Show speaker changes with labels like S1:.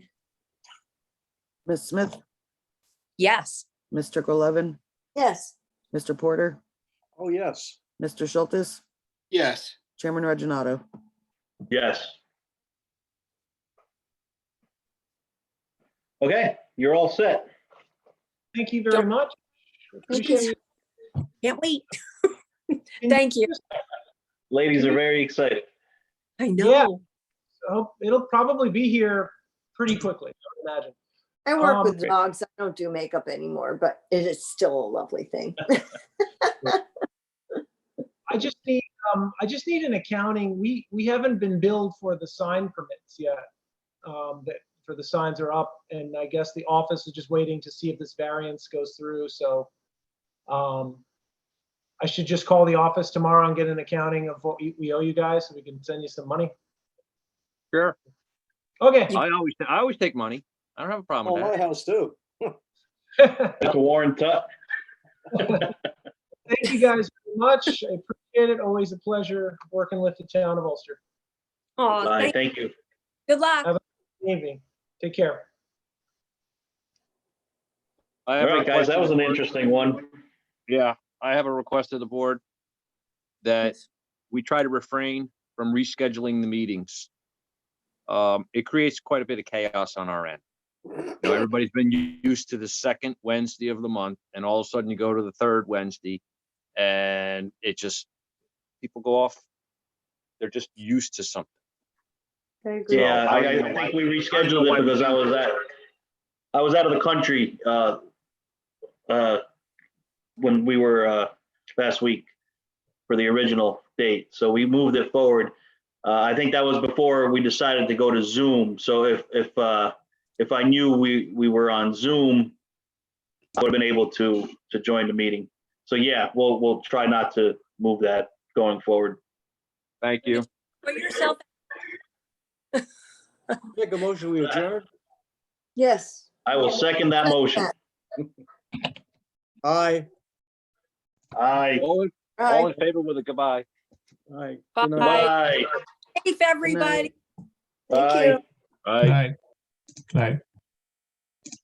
S1: Ms. Smith,
S2: Yes.
S1: Mr. Golevin,
S3: yes,
S1: Mr. Porter,
S4: Oh, yes.
S1: Mr. Schultz,
S5: yes,
S1: Chairman Reggino.
S6: Yes. Okay, you're all set.
S7: Thank you very much.
S3: thank you.
S2: Can't wait.
S7: Can
S2: Thank you.
S6: Ladies are very excited.
S2: I
S7: Yeah.
S2: know.
S7: Oh, It'll probably be here pretty quickly, I would imagine.
S3: I work with
S6: Um,
S3: dogs. I don't do makeup anymore, but it is still a lovely thing.
S7: I just need, um, I just need an accounting. We, we haven't been billed for the sign permits yet. Um, that, for the signs are up and I guess the office is just waiting to see if this variance goes through, so. Um, I should just call the office tomorrow and get an accounting of what we we owe you guys so we can send you some money.
S8: Sure.
S7: Okay.
S8: I always, I always take money. I don't have a problem
S4: Oh,
S8: with
S4: my
S8: that.
S4: house too.
S6: That's Warren Tuck.
S7: Thank you guys very much. I appreciate it. Always a pleasure working with the town of Ulster.
S2: Aw,
S6: Bye,
S2: thank-
S6: thank you.
S2: good luck.
S7: Good Evening. Take care.
S8: I
S6: All
S8: have a
S6: right, guys,
S8: request
S6: that
S8: of
S6: was
S8: the
S6: an
S8: board-
S6: interesting one.
S8: Yeah, I have a request of the board that we try to refrain from rescheduling the meetings. Um, it creates quite a bit of chaos on our end. You know, everybody's been u- used to the second Wednesday of the month and all of a sudden you go to the third Wednesday and it just, people go off. They're just used to something.
S3: I agree.
S6: Yeah, I, I think we rescheduled it because I was at, I was out of the country, uh, uh, when we were, uh, last week for the original date, so we moved it forward. Uh, I think that was before we decided to go to Zoom, so if, if, uh, if I knew we, we were on Zoom, I would have been able to, to join the meeting. So yeah, we'll, we'll try not to move that going forward.
S8: Thank you.
S2: Put yourself,
S4: Make a motion, we adjourn.
S3: Yes.
S6: I will second that motion.
S4: Aye.
S6: Aye.
S8: All in, all
S3: All
S8: in favor with a goodbye.
S4: Aye. Good night.
S2: bye,
S6: Bye.
S2: safe everybody.
S3: right, thank
S6: Bye.
S3: you.
S9: Aye.